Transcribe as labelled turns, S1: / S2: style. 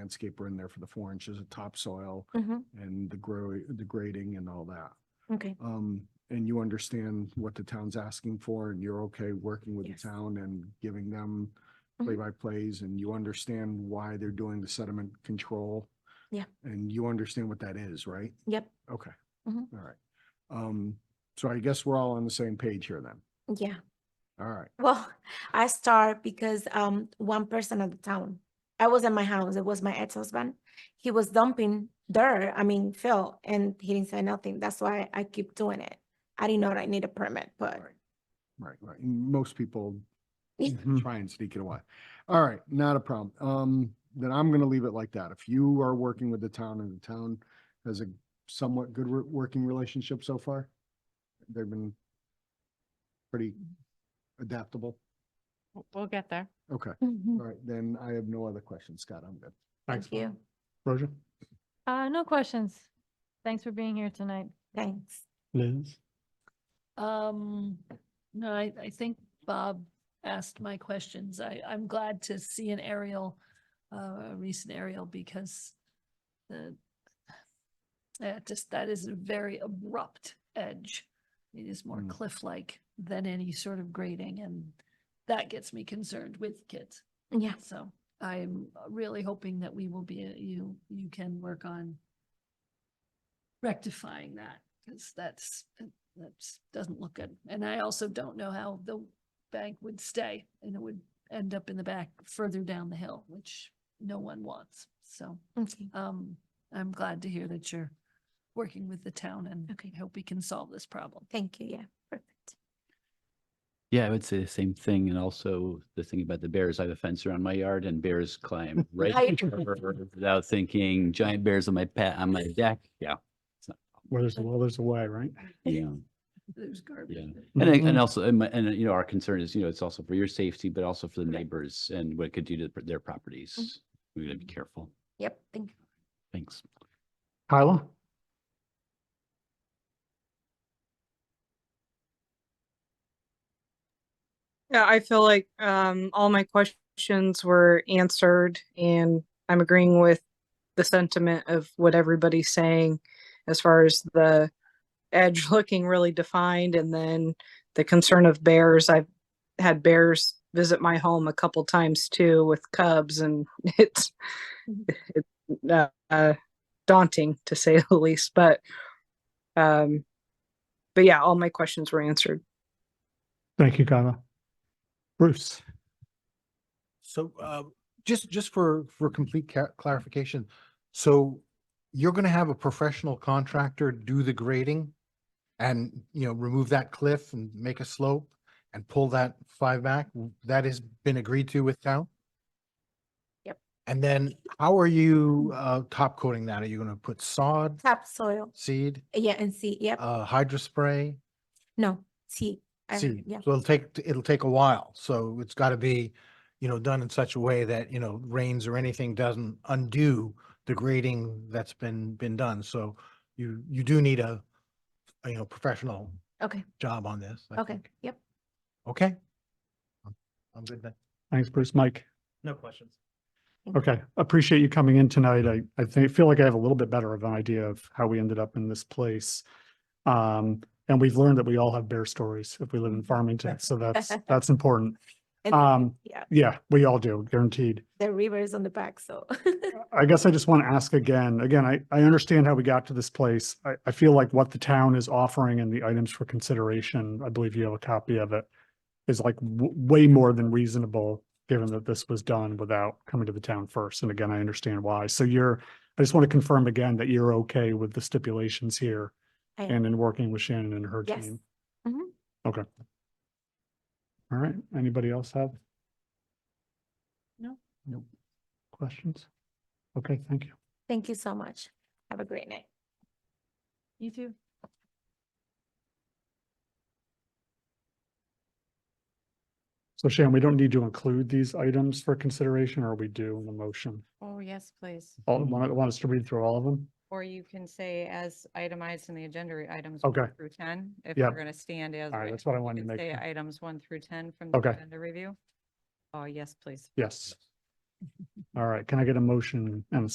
S1: landscaper in there for the four inches of topsoil
S2: Mhm.
S1: and the grow, the grading and all that.
S2: Okay,
S1: Um, and you understand what the town's asking for and you're okay working with the
S2: Yes.
S1: town and giving them
S2: Mhm.
S1: play-by-plays and you understand why they're doing the sediment control.
S2: Yeah.
S1: And you understand what that is, right?
S2: yep,
S1: Okay. All
S2: Mhm.
S1: right. Um, so I guess we're all on the same page here then.
S2: yeah.
S1: All right.
S2: Well, I start because um one person at the town. I was at my house. It was my ex-husband. He was dumping dirt, I mean, fill, and he didn't say nothing. That's why I keep doing it. I didn't know that I need a permit, but
S1: Right, Right, right. And Most people
S2: Yeah.
S3: Mhm.
S1: try and sneak it away. All right, not a problem. Um, then I'm gonna leave it like that. If you are working with the town and the town has a somewhat good wor- working relationship so far, they've been pretty adaptable.
S4: W- We'll get there.
S1: Okay, all
S2: Mhm.
S1: right, then I have no other questions, Scott. I'm good.
S3: Thanks.
S2: thank you,
S3: Roger?
S4: Uh, no questions. Thanks for being here tonight.
S2: thanks.
S3: Liz?
S5: Um, no, I, I think Bob asked my questions. I, I'm glad to see an aerial, uh, a recent aerial because the uh, just, that is a very abrupt edge. It is more
S1: Mm.
S5: cliff-like than any sort of grading and that gets me concerned with kids.
S2: Yeah,
S5: So I'm really hoping that we will be, you, you can work on rectifying that, because that's, that's, doesn't look good. And I also don't know how the bank would stay, and it would end up in the back further down the hill, which no one wants. So,
S2: okay,
S5: um, I'm glad to hear that you're working with the town and
S2: Okay.
S5: I hope we can solve this problem.
S2: thank you, yeah, perfect.
S6: Yeah, I would say the same thing. And also the thing about the bears, I have a fence around my yard and bears climb
S2: I-
S6: right over without thinking giant bears on my pat, on my deck. Yeah.
S3: Where there's a will, there's a way, right?
S6: Yeah.
S5: There's garbage.
S6: Yeah.
S5: there.
S6: And I,
S3: Mhm.
S6: and also, and, my- and you know, our concern is, you know, it's also for your safety, but also for the
S2: Correct.
S6: neighbors and what it could do to their properties. We gotta be careful.
S2: Yep, thank you.
S6: Thanks.
S3: Kyla?
S7: Yeah, I feel like um, all my questions were answered, and I'm agreeing with the sentiment of what everybody's saying as far as the edge looking really defined, and then the concern of bears. I've had bears visit my home a couple times too with cubs, and it's it's uh, uh, daunting to say the least. But um, but yeah, all my questions were answered.
S3: Thank you, Kyla. Bruce?
S8: So, uh, just, just for, for complete ca- clarification, so you're gonna have a professional contractor do the grading and, you know, remove that cliff and make a slope and pull that five back? W- That has been agreed to with town?
S2: Yep.
S8: And then how are you, uh, top coating that? Are you gonna put sod,
S2: Topsoil,
S8: seed,
S2: yeah, and see, yep,
S8: uh, hydro spray?
S2: no, see, I-
S8: See,
S2: yeah,
S8: so it'll take, it'll take a while, so it's gotta be, you know, done in such a way that, you know, rains or anything doesn't undo the grading that's been, been done, so you, you do need a, a, you know, professional
S2: okay,
S8: job on this. I
S2: okay,
S8: think.
S2: yep.
S8: Okay? I'm- I'm good then.
S3: Thanks, Bruce. Mike?
S9: No questions.
S3: Okay, appreciate you coming in tonight. I, I think, feel like I have a little bit better of an idea of how we ended up in this place. Um, and we've learned that we all have bear stories if we live in Farmington, so that's, that's important.
S2: And-
S3: Um,
S2: Yeah,
S3: yeah, we all do, guaranteed.
S2: the river is on the back, so.
S3: I guess I just want to ask again, again, I, I understand how we got to this place. I, I feel like what the town is offering and the items for consideration, I believe you have a copy of it, is like w- way more than reasonable, given that this was done without coming to the town first. And again, I understand why. So you're, I just want to confirm again that you're okay with the stipulations here
S2: I am.
S3: and in working with Shannon and her
S2: Yes.
S3: team.
S2: Mhm.
S3: Okay. All right. Anybody else have?
S5: No.
S3: Nope. Questions? Okay, thank you.
S2: Thank you so much. Have a great night.
S4: You too.
S3: So Shannon, we don't need to include these items for consideration, or we do in the motion?
S10: Oh, yes, please.
S3: All, want, want us to read through all of them?
S10: Or you can say as itemized in the agenda items.
S3: Okay.
S10: Through ten, if
S3: Yep.
S10: we're gonna stand as.
S3: All right,
S10: written,
S3: that's what I
S10: you
S3: wanted to
S10: can
S3: make.
S10: Say
S3: sure.
S10: items one through ten from the
S3: Okay.
S10: agenda review. Oh, yes, please.
S3: Yes. All right, can I get a motion and a